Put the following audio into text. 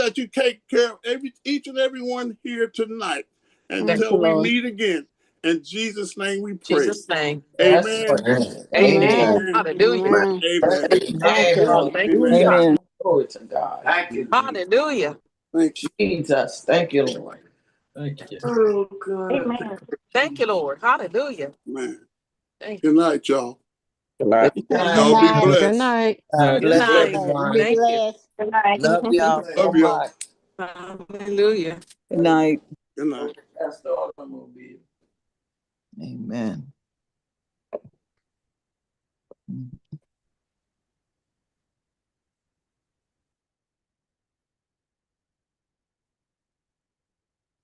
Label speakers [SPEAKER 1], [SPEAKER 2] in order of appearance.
[SPEAKER 1] that you take care of every each and every one here tonight
[SPEAKER 2] Thank you,
[SPEAKER 1] until we
[SPEAKER 2] Lord.
[SPEAKER 1] meet again. In Jesus' name we pray.
[SPEAKER 2] Jesus' name.
[SPEAKER 3] Yes,
[SPEAKER 1] Amen.
[SPEAKER 3] Lord.
[SPEAKER 2] Amen.
[SPEAKER 1] Amen.
[SPEAKER 2] Hallelujah.
[SPEAKER 4] Amen.
[SPEAKER 1] Amen.
[SPEAKER 2] Thank you, Lord. Thank you,
[SPEAKER 1] Amen.
[SPEAKER 2] God.
[SPEAKER 4] Amen.
[SPEAKER 3] Glory to God.
[SPEAKER 5] Thank you.
[SPEAKER 2] Hallelujah.
[SPEAKER 1] Thank you.
[SPEAKER 3] Jesus. Thank you, Lord. Thank you.
[SPEAKER 5] Oh, God.
[SPEAKER 6] Amen.
[SPEAKER 2] Thank you, Lord. Hallelujah.
[SPEAKER 1] Man.
[SPEAKER 2] Thank
[SPEAKER 1] Good night, y'all.
[SPEAKER 3] Good night.
[SPEAKER 1] Y'all be
[SPEAKER 4] Good night. Good night.
[SPEAKER 1] blessed.
[SPEAKER 2] Good
[SPEAKER 3] God bless
[SPEAKER 2] night.
[SPEAKER 3] everyone.
[SPEAKER 4] Be
[SPEAKER 2] Thank you.
[SPEAKER 4] blessed.
[SPEAKER 6] Good night.
[SPEAKER 3] Love y'all so
[SPEAKER 1] Love y'all.
[SPEAKER 3] much.
[SPEAKER 2] Hallelujah.
[SPEAKER 4] Good night.
[SPEAKER 1] Good night.
[SPEAKER 5] That's the automobile.
[SPEAKER 3] Amen.